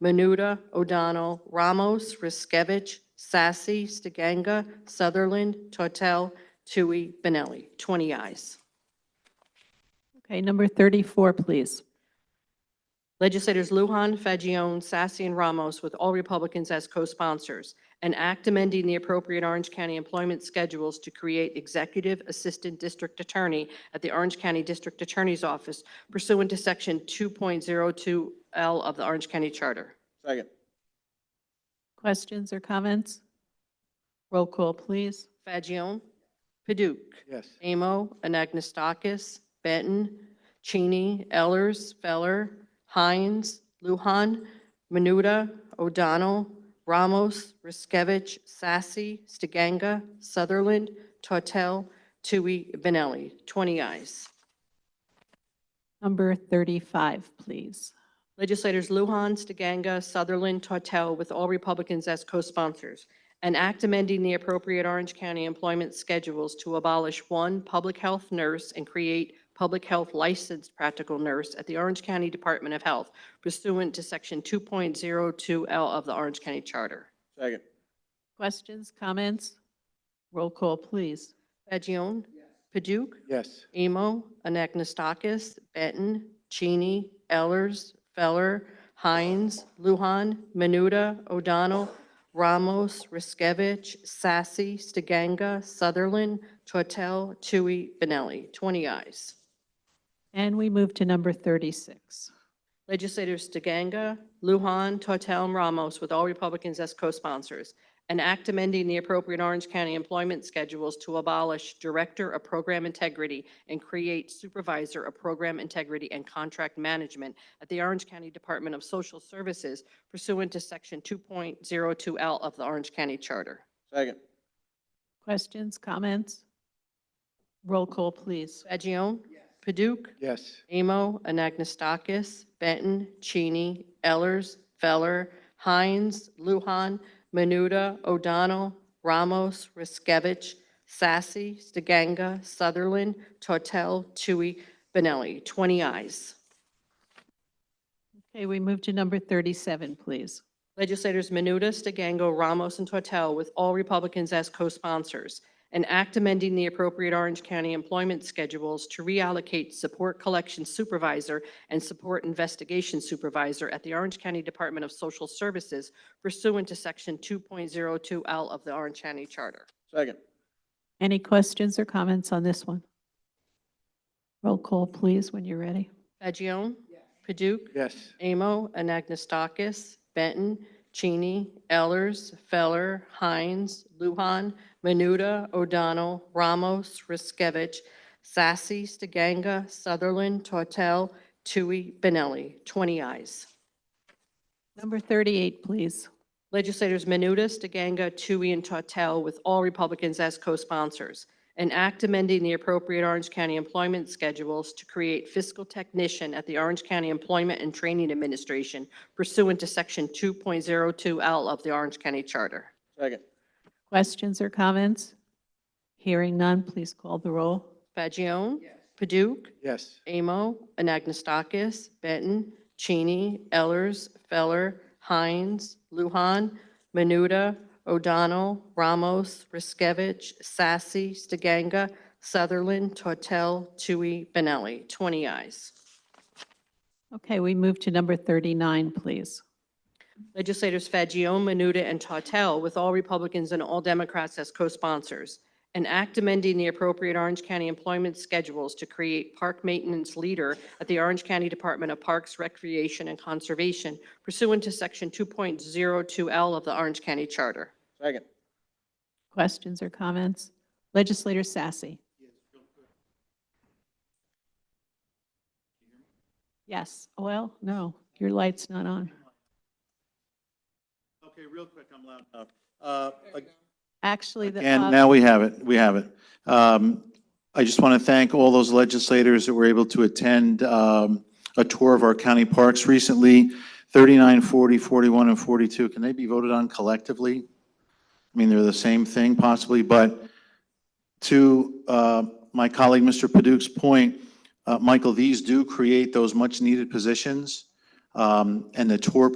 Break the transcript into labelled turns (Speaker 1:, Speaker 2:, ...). Speaker 1: Menuda, O'Donnell, Ramos, Riskevich, Sassy, Stiganga, Sutherland, Tortel, Tui, Benelli. 20 ayes.
Speaker 2: Okay, number 34, please.
Speaker 1: Legislators Lujan, Fagion, Sassy, and Ramos, with all Republicans as co-sponsors, an act amending the appropriate Orange County employment schedules to create Executive Assistant District Attorney at the Orange County District Attorney's Office pursuant to Section 2.02L of the Orange County Charter.
Speaker 3: Second.
Speaker 2: Questions or comments? Roll call, please.
Speaker 1: Fagion, Paduk,
Speaker 3: Yes.
Speaker 1: Amo, Anagnestakis, Benton, Cheney, Ellers, Feller, Hines, Luhan, Menuda, O'Donnell, Ramos, Riskevich, Sassy, Stiganga, Sutherland, Tortel, Tui, Benelli. 20 ayes.
Speaker 2: Number 35, please.
Speaker 1: Legislators Lujan, Stiganga, Sutherland, Tortel, with all Republicans as co-sponsors, an act amending the appropriate Orange County employment schedules to abolish one public health nurse and create public health licensed practical nurse at the Orange County Department of Health pursuant to Section 2.02L of the Orange County Charter.
Speaker 3: Second.
Speaker 2: Questions, comments? Roll call, please.
Speaker 1: Fagion? Paduk?
Speaker 3: Yes.
Speaker 1: Emo, Anagnestakis, Benton, Cheney, Ellers, Feller, Hines, Luhan, Menuda, O'Donnell, Ramos, Riskevich, Sassy, Stiganga, Sutherland, Tortel, Tui, Benelli. 20 ayes.
Speaker 2: And we move to number 36.
Speaker 1: Legislators DeGanga, Lujan, Tortel, and Ramos, with all Republicans as co-sponsors, an act amending the appropriate Orange County employment schedules to abolish Director of Program Integrity and create Supervisor of Program Integrity and Contract Management at the Orange County Department of Social Services pursuant to Section 2.02L of the Orange County Charter.
Speaker 3: Second.
Speaker 2: Questions, comments? Roll call, please.
Speaker 1: Fagion? Paduk?
Speaker 3: Yes.
Speaker 1: Amo, Anagnestakis, Benton, Cheney, Ellers, Feller, Hines, Luhan, Menuda, O'Donnell, Ramos, Riskevich, Sassy, Stiganga, Sutherland, Tortel, Tui, Benelli. 20 ayes.
Speaker 2: Okay, we move to number 37, please.
Speaker 1: Legislators Menuda, Stiganga, Ramos, and Tortel, with all Republicans as co-sponsors, an act amending the appropriate Orange County employment schedules to reallocate support collection supervisor and support investigation supervisor at the Orange County Department of Social Services pursuant to Section 2.02L of the Orange County Charter.
Speaker 3: Second.
Speaker 2: Any questions or comments on this one? Roll call, please, when you're ready.
Speaker 1: Fagion? Paduk?
Speaker 3: Yes.
Speaker 1: Amo, Anagnestakis, Benton, Cheney, Ellers, Feller, Hines, Luhan, Menuda, O'Donnell, Ramos, Riskevich, Sassy, Stiganga, Sutherland, Tortel, Tui, Benelli. 20 ayes.
Speaker 2: Number 38, please.
Speaker 1: Legislators Menuda, DeGanga, Tui, and Tortel, with all Republicans as co-sponsors, an act amending the appropriate Orange County employment schedules to create fiscal technician at the Orange County Employment and Training Administration pursuant to Section 2.02L of the Orange County Charter.
Speaker 3: Second.
Speaker 2: Questions or comments? Hearing none, please call the roll.
Speaker 1: Fagion? Paduk?
Speaker 3: Yes.
Speaker 1: Amo, Anagnestakis, Benton, Cheney, Ellers, Feller, Hines, Luhan, Menuda, O'Donnell, Ramos, Riskevich, Sassy, Stiganga, Sutherland, Tortel, Tui, Benelli. 20 ayes.
Speaker 2: Okay, we move to number 39, please.
Speaker 1: Legislators Fagion, Menuda, and Tautel, with all Republicans and all Democrats as co-sponsors, an act amending the appropriate Orange County employment schedules to create park maintenance leader at the Orange County Department of Parks, Recreation, and Conservation pursuant to Section 2.02L of the Orange County Charter.
Speaker 3: Second.
Speaker 2: Questions or comments? Legislator Sassy. Yes, well, no, your light's not on.
Speaker 4: Okay, real quick, I'm loud enough. Uh, ag-
Speaker 2: Actually, the. uh,
Speaker 4: And now we have it, we have it. Um, I just want to thank all those legislators that were able to attend um, a tour of our county parks recently. 39, 40, 41, and 42, can they be voted on collectively? I mean, they're the same thing possibly, but to uh, my colleague, Mr. Paduk's point, uh, Michael, these do create those much-needed positions. Um, And the tour